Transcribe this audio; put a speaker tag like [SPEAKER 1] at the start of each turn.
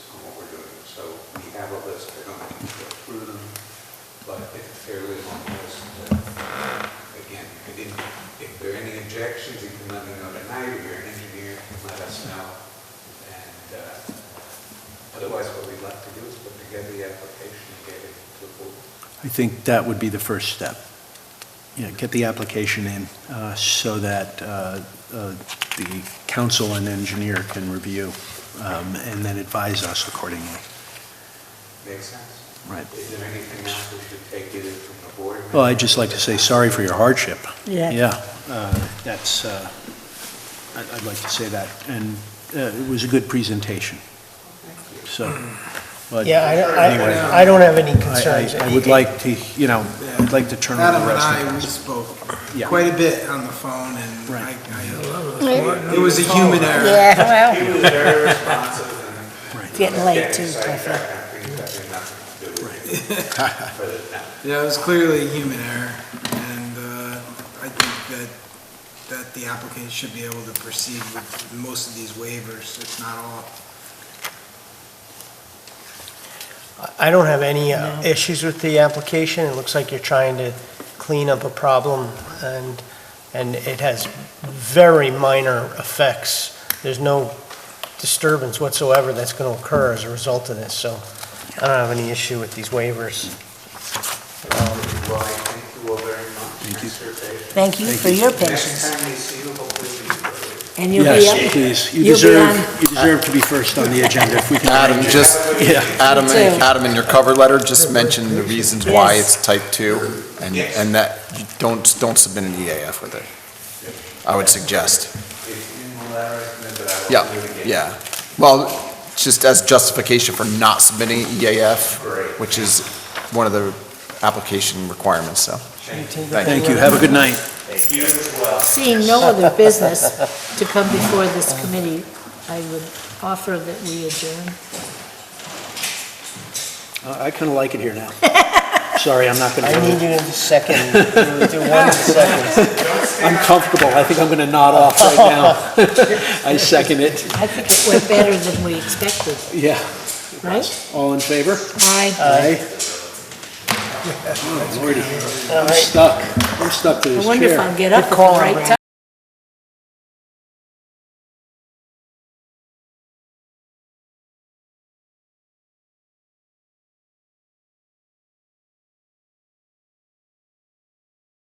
[SPEAKER 1] have a list, I don't have to go through them, but it's a fairly long list. Uh, Again, I didn't, if there are any objections, you can let me know tonight, if you're an engineer, let us know. And uh, otherwise, what we'd like to do is put together the application and get it to the board.
[SPEAKER 2] I think that would be the first step. You know, get the application in uh, so that uh, uh, the council and engineer can review um, and then advise us accordingly.
[SPEAKER 1] Make sense?
[SPEAKER 2] Right.
[SPEAKER 1] Is there anything else we should take either from the board?
[SPEAKER 2] Well, I'd just like to say sorry for your hardship.
[SPEAKER 3] Yeah.
[SPEAKER 2] Yeah, uh, that's, uh, I'd I'd like to say that. And uh, it was a good presentation, so. but
[SPEAKER 3] Yeah, I don't,
[SPEAKER 2] anyway, I-
[SPEAKER 3] I, I don't have any concerns.
[SPEAKER 2] I I would like to, you know, I'd like to turn over
[SPEAKER 4] Adam
[SPEAKER 2] the
[SPEAKER 4] and
[SPEAKER 2] rest of
[SPEAKER 4] I, we spoke
[SPEAKER 2] Yeah.
[SPEAKER 4] quite a bit on the phone, and I,
[SPEAKER 2] Right.
[SPEAKER 4] I- it was a human error.
[SPEAKER 3] Yeah, well,
[SPEAKER 1] He was very responsive and.
[SPEAKER 3] it's getting late too,
[SPEAKER 1] Yeah,
[SPEAKER 3] I
[SPEAKER 1] it's like
[SPEAKER 3] feel.
[SPEAKER 1] that kind of thing that had nothing to do with it. But it- no.
[SPEAKER 4] Yeah, it was clearly a human error, and uh, I think that, that the applicant should be able to proceed with most of these waivers, if not all.
[SPEAKER 3] I don't have any uh, issues with the application. It looks like you're trying to clean up a problem and, and it has very minor effects. There's no disturbance whatsoever that's going to occur as a result of this, so I don't have any issue with these waivers.
[SPEAKER 1] Well, I thank you all very much. Thank you.
[SPEAKER 5] Thank you for your patience.
[SPEAKER 1] Next time you see you, hopefully you'll be-
[SPEAKER 5] And you'll be
[SPEAKER 2] Yes,
[SPEAKER 5] up.
[SPEAKER 2] please. You
[SPEAKER 5] you'll be
[SPEAKER 2] deserve,
[SPEAKER 5] on-
[SPEAKER 2] you deserve to be first on the agenda if we can.
[SPEAKER 6] Adam,
[SPEAKER 2] arrange it.
[SPEAKER 6] just,
[SPEAKER 2] Yeah.
[SPEAKER 6] Adam,
[SPEAKER 5] Two.
[SPEAKER 6] Adam, in your cover letter, just mention the reasons why
[SPEAKER 5] Yes.
[SPEAKER 6] it's type two, and, and that, you don't, don't submit an EAF with it. I would suggest.
[SPEAKER 1] It's in the letter, but I
[SPEAKER 6] Yeah,
[SPEAKER 1] will do it again.
[SPEAKER 6] yeah. Well, just as justification for not submitting EAF,
[SPEAKER 1] Great.
[SPEAKER 6] which is one of the application requirements, so.
[SPEAKER 2] Thank you. Have a good night.
[SPEAKER 1] You as well.
[SPEAKER 5] Seeing no other business to come before this committee, I would offer that we adjourn.
[SPEAKER 2] Uh, I kind of like it here now. Sorry, I'm not going
[SPEAKER 3] I need
[SPEAKER 2] to,
[SPEAKER 3] you to second, do one second.
[SPEAKER 2] I'm comfortable. I think I'm going to nod off right now. I second it.
[SPEAKER 5] I think it went better than we expected,
[SPEAKER 2] Yeah.
[SPEAKER 5] right?
[SPEAKER 2] All in favor?
[SPEAKER 5] Aye.
[SPEAKER 2] Aye. Oh, Lordy,
[SPEAKER 3] All
[SPEAKER 2] I'm
[SPEAKER 3] right.
[SPEAKER 2] stuck. I'm stuck to
[SPEAKER 5] I
[SPEAKER 2] this
[SPEAKER 5] wonder if
[SPEAKER 2] chair.
[SPEAKER 5] I'll get up at the
[SPEAKER 3] call,
[SPEAKER 5] right
[SPEAKER 3] Brad.
[SPEAKER 5] time.